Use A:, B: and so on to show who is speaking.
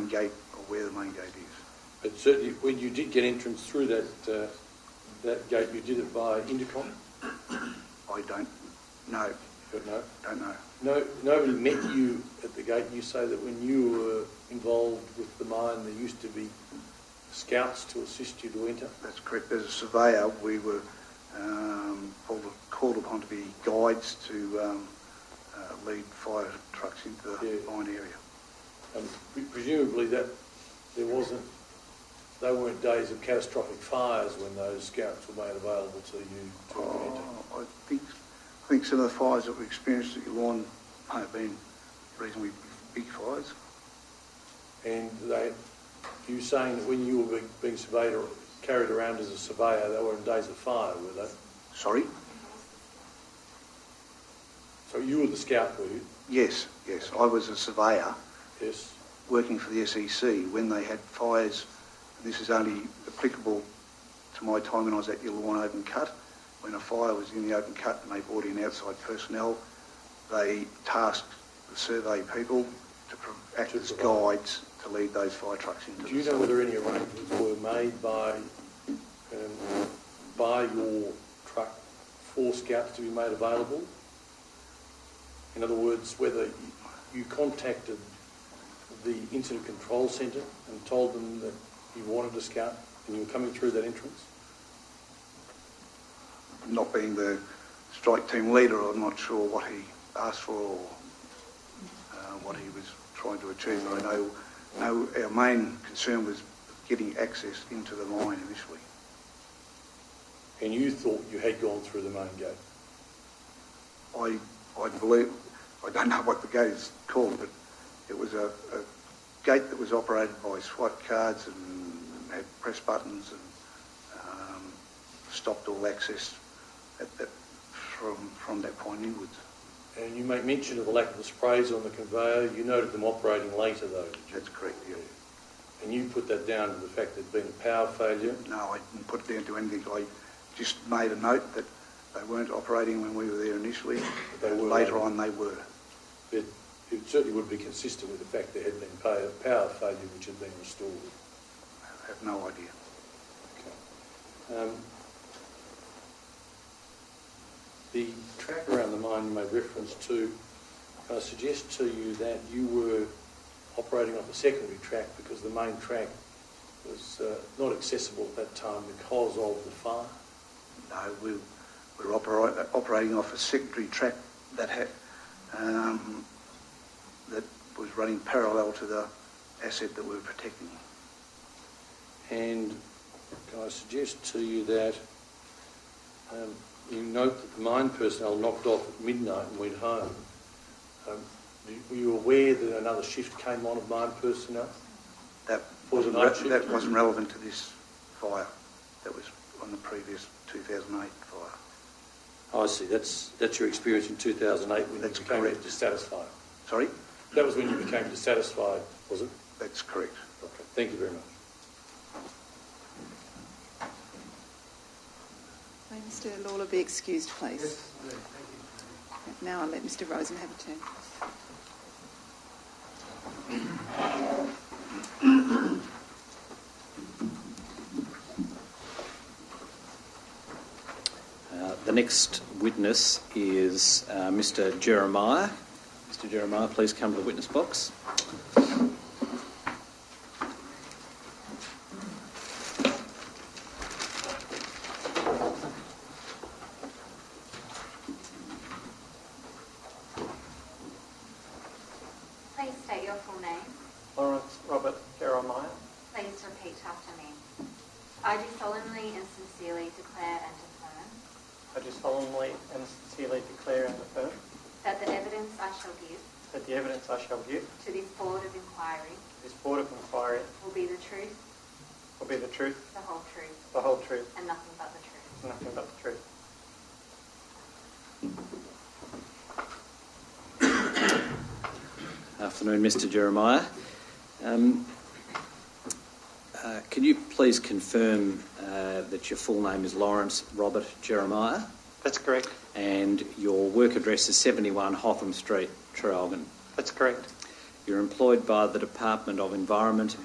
A: gate or where the main gate is.
B: But certainly, when you did get entrance through that, uh, that gate, you did it via intercom?
A: I don't know,
B: But no,
A: don't know.
B: no, nobody met you at the gate. You say that when you were involved with the mine, there used to be scouts to assist you to enter?
A: That's correct. As a surveyor, we were um, called, called upon to be guides to um, uh, lead fire trucks into the
B: Yeah.
A: mine area.
B: And pre- presumably that, there wasn't, they weren't days of catastrophic fires when those scouts were made available to you to enter?
A: Oh, I think I think some of the fires that we experienced at Yulon may have been reasonably big fires.
B: And they, you saying that when you were being- being surveyed or carried around as a surveyor, they were in days of fire, were they?
A: Sorry?
B: So you were the scout, were you?
A: Yes, yes. I was a surveyor
B: Yes.
A: working for the SEC when they had fires. This is only applicable to my time when I was at Illawarra Open Cut. When a fire was in the open cut and they brought in outside personnel, they tasked the survey people to pro- act
B: To
A: as
B: provide.
A: guides to lead those fire trucks into
B: Do you
A: the
B: know whether any arrangements were made by, um, by your truck for scouts to be made available? In other words, whether you contacted the incident control centre and told them that you wanted a scout and you were coming through that entrance?
A: Not being the strike team leader, I'm not sure what he asked for or uh, what he was trying to achieve. I know, know our main concern was getting access into the mine initially.
B: And you thought you had gone through the main gate?
A: I, I believe, I don't know what the gate is called, but it was a, a gate that was operated by SWAT cards and had press buttons and um, stopped all access at that, from, from that point inwards.
B: And you make mention of the lack of the sprays on the conveyor. You noted them operating later though, did you?
A: That's correct, yeah.
B: And you put that down to the fact there'd been a power failure?
A: No, I didn't put it down to anything. I just made a note that they weren't operating when we were there initially.
B: They were
A: Later
B: later.
A: on, they were.
B: It, it certainly would be consistent with the fact there had been power, power failure which had been restored.
A: I have no idea.
B: Okay. Um, the track around the mine you made reference to, I suggest to you that you were operating off a secondary track because the main track was uh, not accessible at that time because of the fire.
A: No, we we're opera- operating off a secondary track that had um, that was running parallel to the asset that we were protecting.
B: And can I suggest to you that um, you note that the mine personnel knocked off at midnight and went home. Um, you- were you aware that another shift came on of mine personnel?
A: That
B: Was it
A: wasn't
B: night
A: re-
B: shift?
A: that wasn't relevant to this fire. That was on the previous 2008 fire.
B: I see. That's that's your experience in 2008 when
A: That's
B: you became
A: correct.
B: dissatisfied.
A: Sorry,
B: That was when you became dissatisfied, was it?
A: that's correct.
B: Okay. Thank you very much.
C: May Mr Lawler be excused, please? Now I'll let Mr Rosen have a turn.
D: Uh, The next witness is uh, Mr. Jeremiah. Mr. Jeremiah, please come to the witness box.
E: Please state your full name.
F: Lawrence Robert Jeremiah,
E: Please repeat after me. I do solemnly and sincerely declare and affirm
F: I do solemnly and sincerely declare and affirm
E: that the evidence I shall give
F: that the evidence I shall give
E: to this Board of Inquiry
F: to this Board of Inquiry
E: will be the truth,
F: will be the truth,
E: the whole truth,
F: the whole truth,
E: and nothing but the truth.
F: and nothing but the truth.
D: Afternoon, Mr. Jeremiah. Um, uh, Can you please confirm uh, that your full name is Lawrence Robert Jeremiah
F: That's correct.
D: and your work address is 71 Hotham Street, Traralgon?
F: That's correct.
D: You're employed by the Department of Environment